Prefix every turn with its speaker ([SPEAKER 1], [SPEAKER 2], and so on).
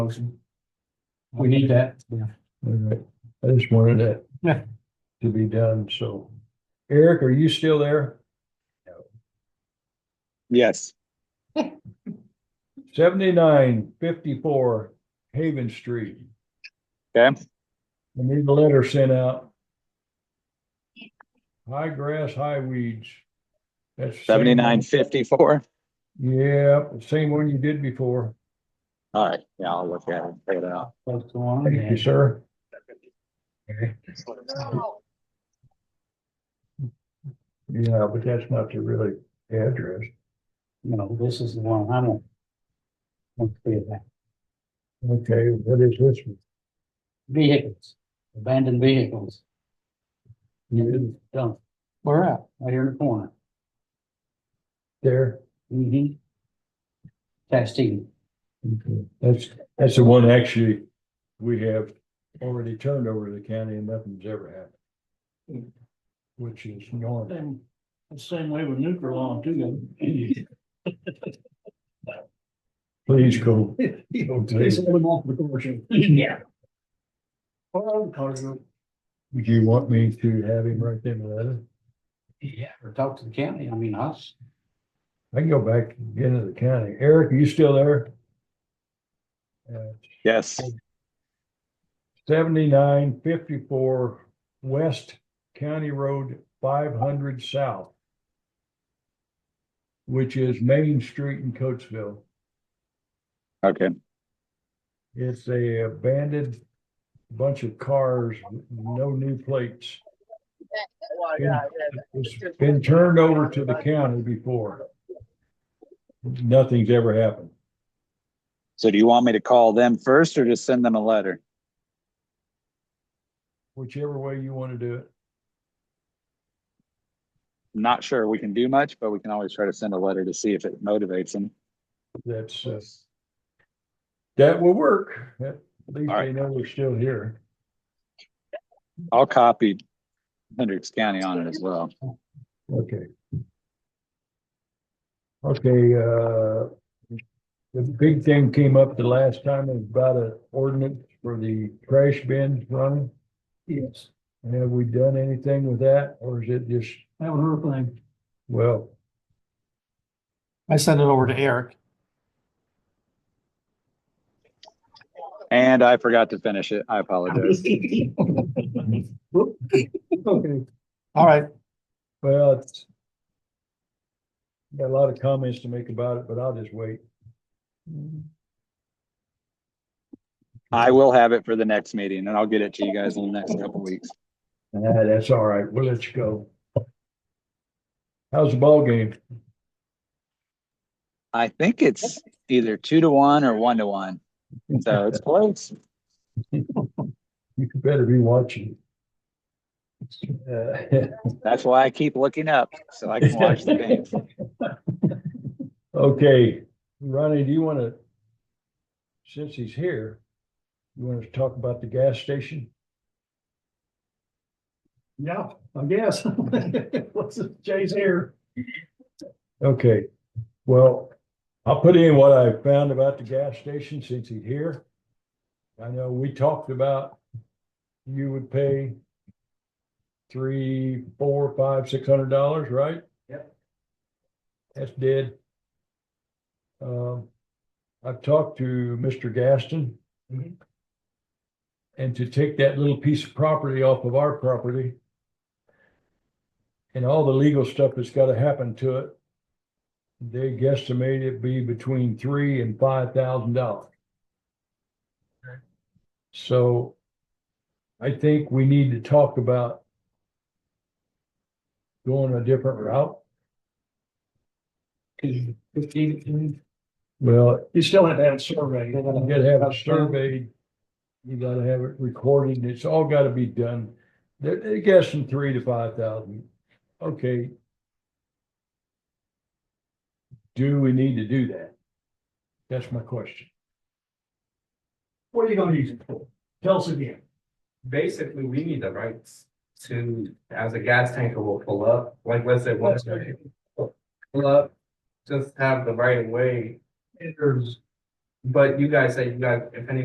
[SPEAKER 1] Motion. We need that.
[SPEAKER 2] All right, I just wanted that.
[SPEAKER 1] Yeah.
[SPEAKER 2] To be done, so. Eric, are you still there?
[SPEAKER 3] Yes,
[SPEAKER 2] Seventy-nine fifty-four Haven Street. I
[SPEAKER 3] okay,
[SPEAKER 2] need a letter sent out. High grass, high weeds. That's. the same one-
[SPEAKER 3] seventy-nine fifty-four.
[SPEAKER 2] Yeah, same one you did before.
[SPEAKER 3] All right, yeah, I'll look at it, and figure it out.
[SPEAKER 1] That's the one.
[SPEAKER 2] Thank you, sir. Okay. Yeah, but that's not the really address.
[SPEAKER 1] No, this is the one I'm on. Let's clear that.
[SPEAKER 2] Okay, what is this? one?
[SPEAKER 1] Vehicles, abandoned vehicles. You dump. Where at? Right here in the corner.
[SPEAKER 2] There.
[SPEAKER 1] Mm-hmm. Chastity.
[SPEAKER 2] Okay, That's, that's the one actually we have already turned over to the county and nothing's ever happened. Which is normal.
[SPEAKER 4] Same, the same way with nuclear law too. then.
[SPEAKER 2] Please go.
[SPEAKER 4] It's a little more proportion. Yeah. Well,
[SPEAKER 2] Would you want me to have him write them a letter?
[SPEAKER 1] Yeah. Or talk to the county, I mean, us.
[SPEAKER 2] I can go back again to the county. Eric, are you still there? Uh,
[SPEAKER 3] Yes,
[SPEAKER 2] Seventy-nine fifty-four West County Road five hundred South. Which is Main Street in Coatesville.
[SPEAKER 3] okay,
[SPEAKER 2] It's a abandoned bunch of cars, with no new plates. It's been turned over to the county before. Nothing's ever happened.
[SPEAKER 3] so do you want me to call them first or just send them a letter?
[SPEAKER 2] Whichever way you want to do it.
[SPEAKER 3] Not sure we can do much, but we can always try to send a letter to see if it motivates them.
[SPEAKER 2] That's, uh, that will work. At least
[SPEAKER 3] All
[SPEAKER 2] they
[SPEAKER 3] right.
[SPEAKER 2] know we're still here.
[SPEAKER 3] I'll copy Hendricks County on it as well.
[SPEAKER 2] Okay. Okay, uh, the big thing came up the last time is about an ordinance for the trash bins running.
[SPEAKER 4] Yes,
[SPEAKER 2] And have we done anything with that, or is it just,
[SPEAKER 4] that was her thing.
[SPEAKER 2] well,
[SPEAKER 4] I sent it over to Eric.
[SPEAKER 3] And I forgot to finish it. I apologize.
[SPEAKER 4] Okay. All right,
[SPEAKER 2] well, it's got a lot of comments to make about it, but I'll just wait.
[SPEAKER 3] I will have it for the next meeting and I'll get it to you guys in the next couple weeks.
[SPEAKER 2] Ah, that's all right. We'll let you go. How's the ball game?
[SPEAKER 3] I think it's either two to one or one to one. So it's close.
[SPEAKER 2] You could better be watching. Uh,
[SPEAKER 3] That's why I keep looking up so I can watch the games.
[SPEAKER 2] Okay, Ronnie, do you want to, since he's here, you want to talk about the gas station?
[SPEAKER 4] yeah, I guess. What's Jay's here?
[SPEAKER 2] Okay, well, I'll put in what I found about the gas station since he's here. I know we talked about you would pay three, four, five, six hundred dollars, right?
[SPEAKER 4] Yep.
[SPEAKER 2] That's dead. Um, I've talked to Mr. Gaston.
[SPEAKER 4] Mhm.
[SPEAKER 2] And to take that little piece of property off of our property and all the legal stuff that's gotta happen to it, they guesstimate it be between three and five thousand dollars. So I think we need to talk about going a different route.
[SPEAKER 4] You
[SPEAKER 2] Well,
[SPEAKER 4] still have to have a survey.
[SPEAKER 2] you gotta have it surveyed. You gotta have it recorded. and It's all gotta be done. They're, they're guessing three to five thousand. Okay. Do we need to do that? That's my question.
[SPEAKER 4] What are you gonna use it for? Tell us again.
[SPEAKER 5] basically, we need the rights to, as a gas tanker will pull up, like let's say one. Pull up, just have the right of way
[SPEAKER 4] There's
[SPEAKER 5] But you guys say you guys, if any